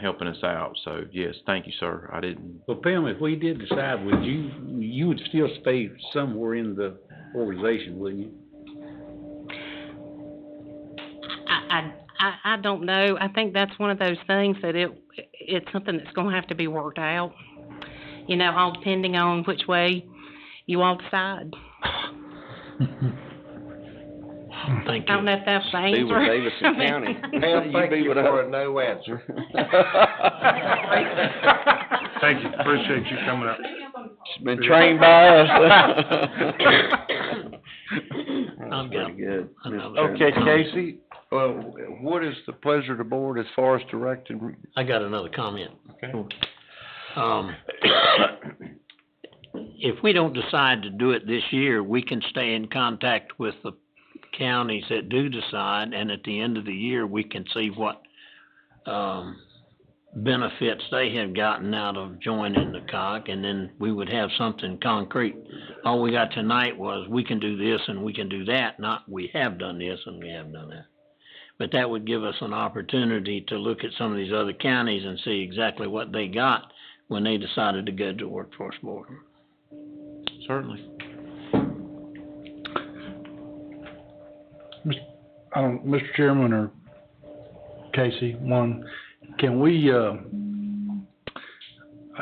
helping us out. So yes, thank you, sir. I didn't, Well, Pam, if we did decide, would you, you would still stay somewhere in the organization, wouldn't you? I, I, I- I don't know. I think that's one of those things that it, it's something that's gonna have to be worked out. You know, all depending on which way you all decide. Thank I don't know if that's the answer. with Davidson County. Pam, thank you for a no answer. Thank you, appreciate you coming up. She's been trained by us. I'm That's pretty good. I'm- Okay, Casey, well, what is the pleasure of the board as far as directing? I got another comment. Okay. Um, if we don't decide to do it this year, we can stay in contact with the counties that do decide, and at the end of the year, we can see what, um, benefits they have gotten out of joining the COG, and then we would have something concrete. All we got tonight was, we can do this and we can do that, not we have done this and we have done that. But that would give us an opportunity to look at some of these other counties and see exactly what they got when they decided to go to workforce board. certainly. Um, Mr. Chairman or Casey, one, can we, uh,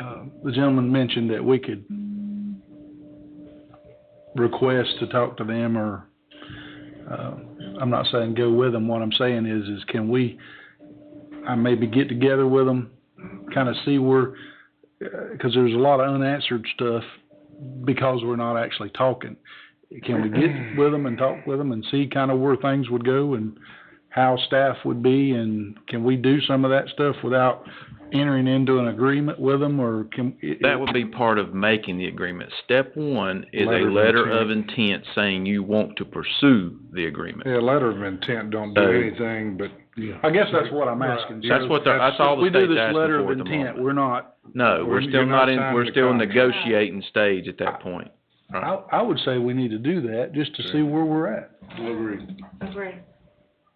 uh, the gentleman mentioned that we could request to talk to them or, uh, I'm not saying go with them. What I'm saying is, is can we, I maybe get together with them, kind of see where, uh, cause there's a lot of unanswered stuff because we're not actually talking can we get with them and talk with them and see kind of where things would go and how staff would be and can we do some of that stuff without entering into an agreement with them or can? it- That would be part of making the agreement. Step one is Letter a of letter of intent saying you want to pursue the agreement. Yeah, letter of intent don't do So- anything, but I guess that's what I'm asking. That's So, what, the- that's all the We do state's this asking letter of for at the intent, moment. we're not, No, we're You're still not not in, signing we're the still in contract. negotiating stage at that point. I, I would say we need to do that just to see where we're at. Agree.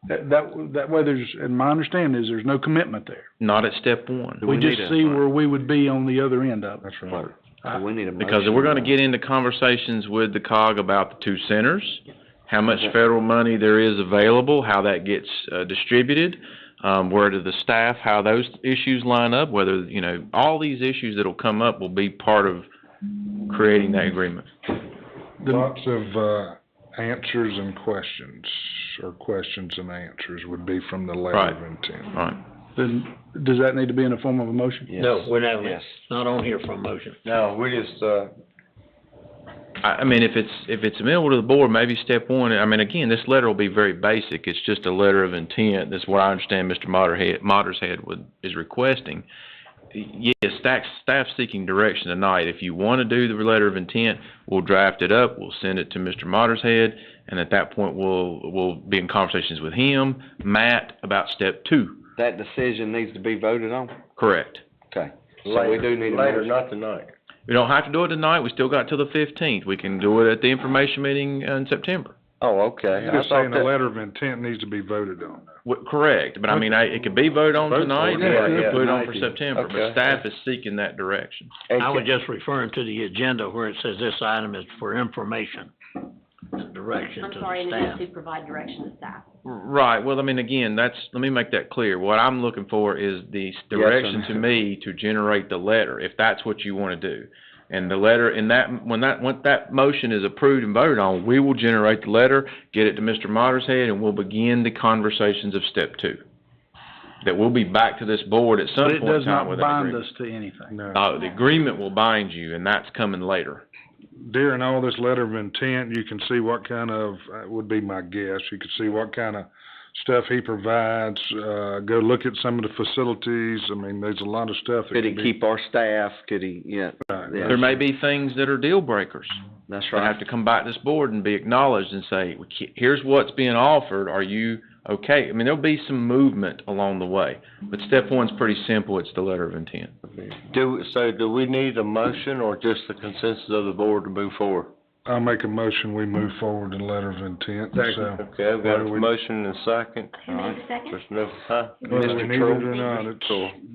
That, that, that way there's, and my understanding is there's no commitment there. Not at step one. We just see where we would be on the other end of it. that's right. We need a motion. Because we're gonna get into conversations with the COG about the two centers, how much Okay. federal money there is available, how that gets, uh, distributed, um, where do the staff, how those issues line up, whether, you know, all these issues that'll come up will be part of creating that agreement. Lots of, uh, answers and questions, or questions and answers would be from the letter of intent. Right. Then, does that need to be in the form of a motion? No, we're not, Yes. not on here for a motion. No, we just, uh, I, I mean, if it's, if it's amenable to the board, maybe step one, I mean, again, this letter will be very basic, it's just a letter of intent, that's what I understand Mr. Motterhead, Mottershead would, is requesting. Yes, staff, staff seeking direction tonight, if you wanna do the letter of intent, we'll draft it up, we'll send it to Mr. Mottershead, and at that point, we'll, we'll be in conversations with him, Matt, about step two, That decision needs to be voted on. correct? Okay. So we do later, need a later, motion. not tonight. We don't have to do it tonight, we still got till the fifteenth, we can do it at the information meeting in September. Oh, okay. You're I just saying thought the that, letter of intent needs to be voted on. Wh- Correct, but I mean, I, it could be voted on Vote for it. tonight, Yeah, or it yeah, could put it on for tonight. September, but Okay. staff is seeking that direction. I was and just referring to the agenda where it says this item is for information, direction I'm to sorry, the and it staff. needs to provide direction to staff. Right, well, I mean, again, that's, let me make that clear, what I'm looking for is the s- Yes, direction sir. to me to generate the letter, if that's what you wanna do. And the letter, and that, when that, when that motion is approved and voted on, we will generate the letter, get it to Mr. Motter's head, and we'll begin the conversations of step two. That we'll be back to this board at some But point it in does time not with an bind agreement. us to anything. No. No, the agreement will bind you, and that's coming later. During all this letter of intent, you can see what kind of, uh, would be my guess, you can see what kind of stuff he provides, uh, go look at some of the facilities, I mean, there's a lot of stuff that could he can be. keep our staff? Could he, yeah, Right. yeah. There may be things that are deal breakers that's that right. have to come back to this board and be acknowledged and say, "We ca- here's what's being offered, are you okay? I mean, there'll be some movement along the way, but step one's pretty simple, it's the letter of intent. Do, so do we need a motion or just the consensus of the board to move forward? I'll make a motion, we move forward in letter of intent, so. Okay, I've got Whether a we- motion and a second. Who made the second? There's no, huh? Whether we need it or not, it's.